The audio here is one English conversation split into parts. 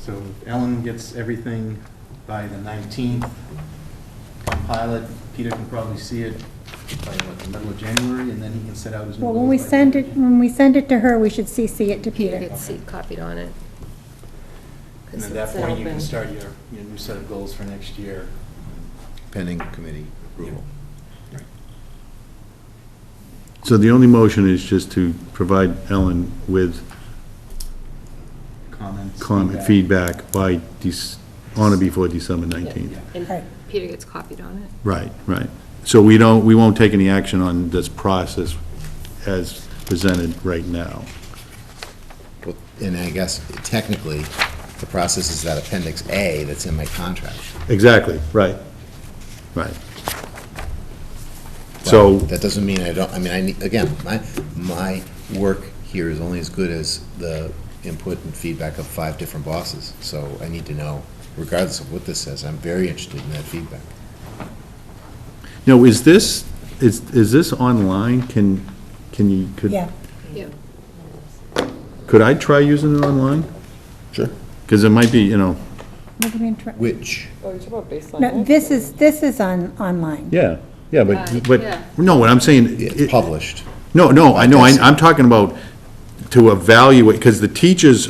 So Ellen gets everything by the 19th, compile it, Peter can probably see it by what, the middle of January, and then he can set out his new Well, goals. when we by send then. it, when we send it to her, we should CC it to Peter Peter. gets seat copied on it. And 'Cause at that it's point, you can open. start your, your new set of goals for next year. pending committee approval. So the only motion is just to provide Ellen with Comments. comment, feedback by, Dec- on or before December 19th. Yeah. Right. And Peter gets copied on it. Right, right. So we don't, we won't take any action on this process as presented right now. Well, And I guess technically, the process is that appendix A that's in my contract. Exactly, right, right. But So, That doesn't mean I don't, I mean, I need, again, my, my work here is only as good as the input and feedback of five different bosses. So I need to know, regardless of what this says, I'm very interested in that feedback. no, is this, is, is this online? Can, can you, could, Yeah, Yeah. could I try using it online? Sure. Because it might be, you know. What do you mean try- Which, Oh, you're talking about baseline. No, this is, this is on, online. Yeah, yeah, Uh, but, yeah. but, no, what I'm saying. it's it- published. No, no, I know, I- That's- I'm talking about to evaluate, because the teachers,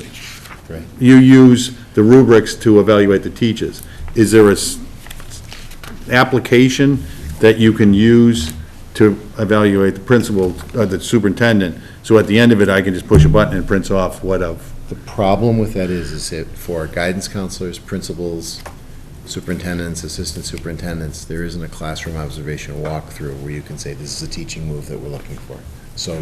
Right. you use the rubrics to evaluate the teachers. Is there a s- application that you can use to evaluate the principal, uh, the superintendent? So at the end of it, I can just push a button and it prints off what of? The problem with that is, is it, for guidance counselors, principals, superintendents, assistant superintendents, there isn't a classroom observation walkthrough where you can say, this is a teaching move that we're looking for. So,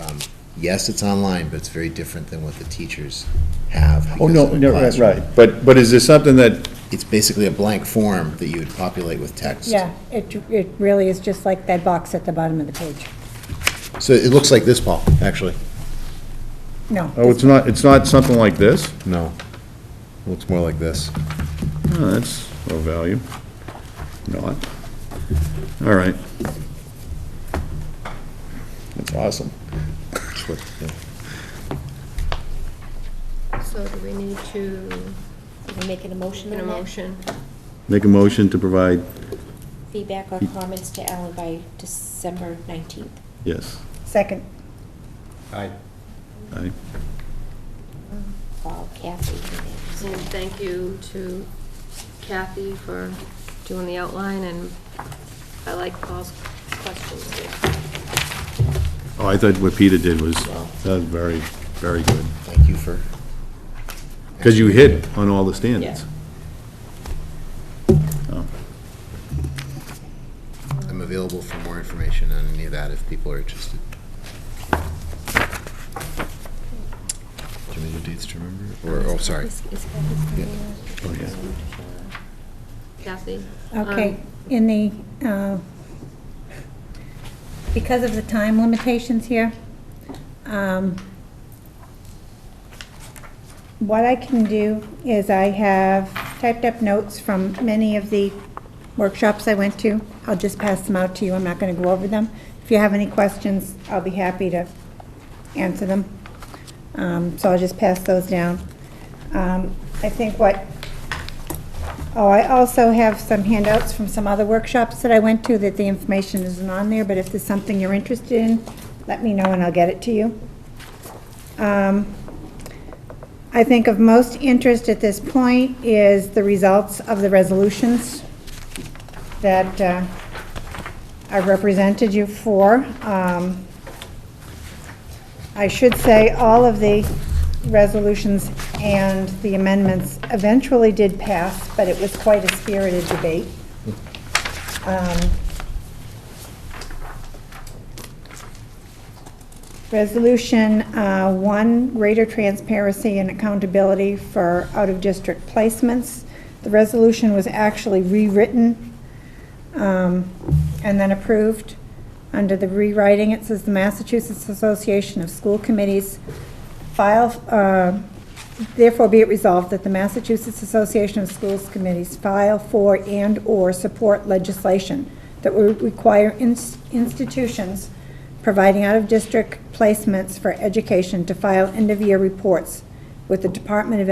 um, yes, it's online, but it's very different than what the teachers have. Oh, because of the classroom. But, but is there something that, It's basically a blank form that you would populate with text. Yeah, it, it really is just like that box at the bottom of the page. So it looks like this, Paul, actually. No. oh, it's not, it's not something like this? No. Looks more like this. Oh, that's low value. Not. All right. That's awesome. It's what- yeah. So do we need to Did we make an emotion make a on that? motion? Make a motion to provide, Feedback or comments to Ellen by December 19th. yes, Second, Aye. aye. Paul, Kathy, and And thank you to Kathy for doing the outline, and I like Paul's questions. Oh, I thought what Peter did was, that was very, very good. Thank you for. Because you hit on all the standards. Oh, I'm available for more information on any of that if people are interested. Do you need the dates to remember? Or, oh, sorry. Is- is Kathy still oh, yeah. there? Kathy? okay, Um, in the, uh, because of the time limitations here, um, what I can do is I have typed up notes from many of the workshops I went to. I'll just pass them out to you, I'm not gonna go over them. If you have any questions, I'll be happy to answer them. Um, So I'll just pass those down. Um, I think what Oh, I also have some handouts from some other workshops that I went to that the information isn't on there, but if there's something you're interested in, let me know and I'll get it to you. Um, I think of most interest at this point is the results of the resolutions that uh, I represented you for. Um, I should say, all of the resolutions and the amendments eventually did pass, but it was quite a spirited debate. Um, Resolution uh, 1, greater transparency and accountability for out-of-district placements. The resolution was actually rewritten um, and then approved. Under the rewriting, it says the Massachusetts Association of School Committees file, uh, therefore be it resolved that the Massachusetts Association of Schools Committees file for and/or support legislation that would require ins- institutions providing out-of-district placements for education to file end-of-year reports with the Department of